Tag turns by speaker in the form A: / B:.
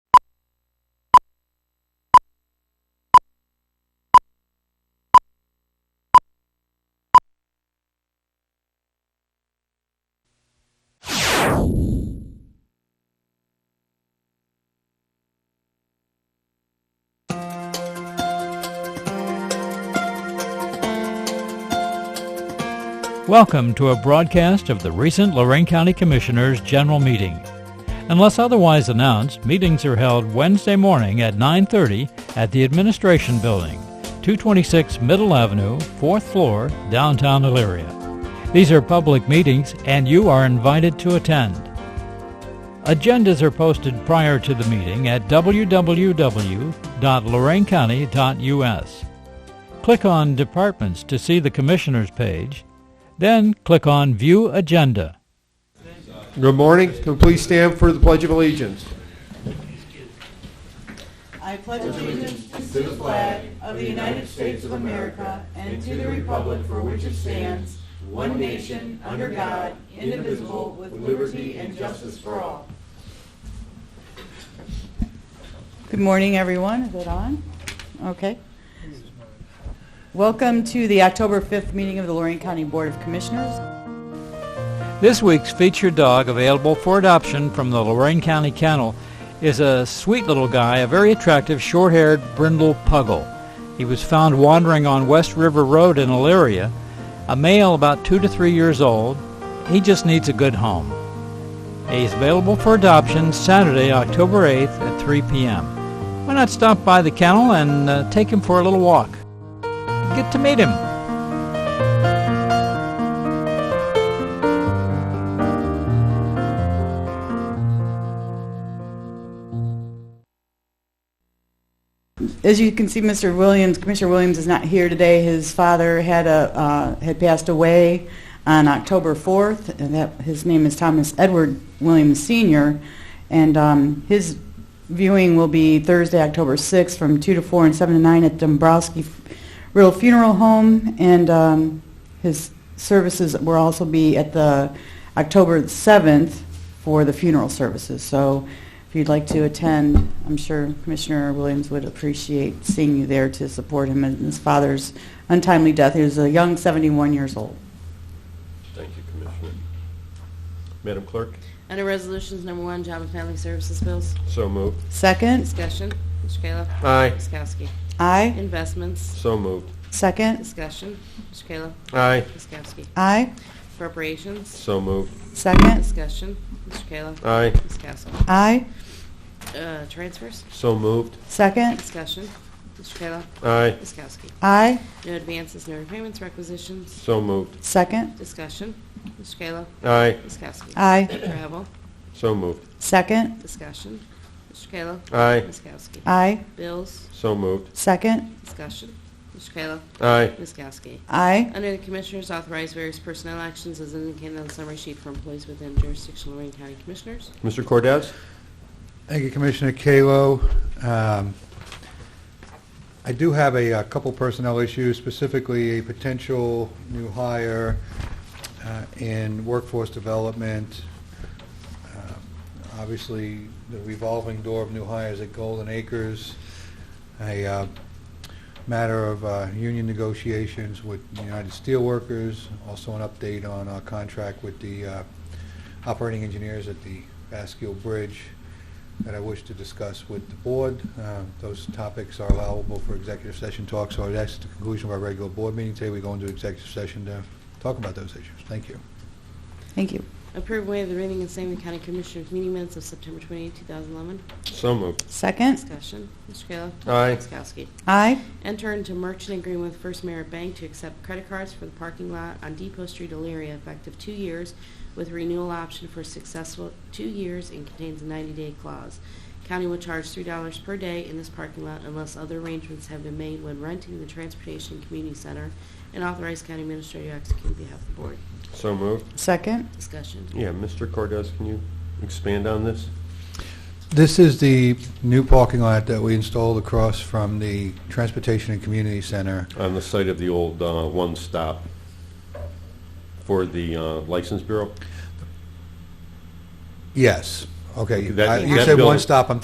A: Welcome to a broadcast of the recent Lorraine County Commissioners' General Meeting. Unless otherwise announced, meetings are held Wednesday morning at 9:30 at the Administration Building, 226 Middle Avenue, 4th floor, downtown Elyria. These are public meetings and you are invited to attend. Agendas are posted prior to the meeting at www.loraincounty.us. Click on Departments to see the Commissioners page, then click on View Agenda.
B: Good morning. Can we please stand for the Pledge of Allegiance?
C: I pledge allegiance to the flag of the United States of America and to the republic for which it stands, one nation, under God, indivisible, with liberty and justice for all. Good morning, everyone. Is it on? Okay. Welcome to the October 5th meeting of the Lorraine County Board of Commissioners.
A: This week's featured dog available for adoption from the Lorraine County Kennel is a sweet little guy, a very attractive short-haired brindle puggle. He was found wandering on West River Road in Elyria, a male about two to three years old. He just needs a good home. He's available for adoption Saturday, October 8th at 3 p.m. Why not stop by the kennel and uh, take him for a little walk? Get to meet him.
C: As you can see, Mr. Williams, Commissioner Williams is not here today. His father had a, uh, had passed away on October 4th, and that, his name is Thomas Edward Williams Sr., and um, his viewing will be Thursday, October 6th, from 2 to 4 and 7 to 9 at Dombrowski Riddle Funeral Home, and um, his services will also be at the October 7th for the funeral services. So if you'd like to attend, I'm sure Commissioner Williams would appreciate seeing you there to support him in his father's untimely death. He was a young 71 years old.
B: Thank you, Commissioner. Madam Clerk,
D: Under Resolutions Number One, Job and Family Services Bills.
B: so moved.
C: Second,
D: Discussion. Mr. Kayla.
B: Aye.
D: Ms. Kowski.
C: aye.
D: Investments.
B: So moved.
C: Second,
D: Discussion. Mr. Kayla.
B: Aye.
D: Ms. Kowski.
C: aye.
D: Appropriations.
B: So moved.
C: Second,
D: Discussion. Mr. Kayla.
B: Aye.
D: Ms. Kowski.
C: aye.
D: Uh, Transfers.
B: So moved.
C: Second,
D: Discussion. Mr. Kayla.
B: Aye.
D: Ms. Kowski.
C: aye.
D: No advances, no repayments, requisitions.
B: So moved.
C: Second,
D: Discussion. Mr. Kayla.
B: Aye.
D: Ms. Kowski.
C: aye.
D: Travel.
B: So moved.
C: Second,
D: Discussion. Mr. Kayla.
B: Aye.
D: Ms. Kowski.
C: aye.
D: Bills.
B: So moved.
C: Second,
D: Discussion. Mr. Kayla.
B: Aye.
D: Ms. Kowski.
C: aye.
D: Under the Commissioners, authorize various personnel actions as indicated on the summary sheet for employees within jurisdiction of Lorraine County Commissioners.
B: Mr. Cordez?
E: Thank you, Commissioner Kalo. Um, I do have a uh, couple personnel issues, specifically a potential new hire uh, in workforce development. Uh, Obviously, the revolving door of new hires at Golden Acres, a uh, matter of uh, union negotiations with United Steelworkers, also an update on our contract with the uh, operating engineers at the Vascular Bridge that I wish to discuss with the board. Uh, Those topics are allowable for executive session talk, so that's the conclusion of our regular board meeting today. We go into executive session to talk about those issues. Thank you.
C: Thank you.
D: Approve way of the reading and same the County Commissioners meeting minutes of September 28, 2011.
B: So moved.
C: Second,
D: Discussion. Mr. Kayla.
B: Aye.
D: Ms. Kowski.
C: aye.
D: Enter into merchant agreement with First Merit Bank to accept credit cards for the parking lot on Depot Street, Elyria, effective two years with renewal option for successful two years and contains a 90-day clause. County will charge $3 per day in this parking lot unless other arrangements have been made when renting the Transportation Community Center and authorize county administrator to execute on behalf of the board.
B: So moved.
C: Second,
D: Discussion.
B: Yeah, Mr. Cordez, can you expand on this?
E: This is the new parking lot that we installed across from the Transportation and Community Center.
B: On the site of the old uh, One Stop for the uh, License Bureau?
E: Yes. Okay.
B: Okay, that-
E: I- You
B: that
E: said
B: building-
E: one stop. I'm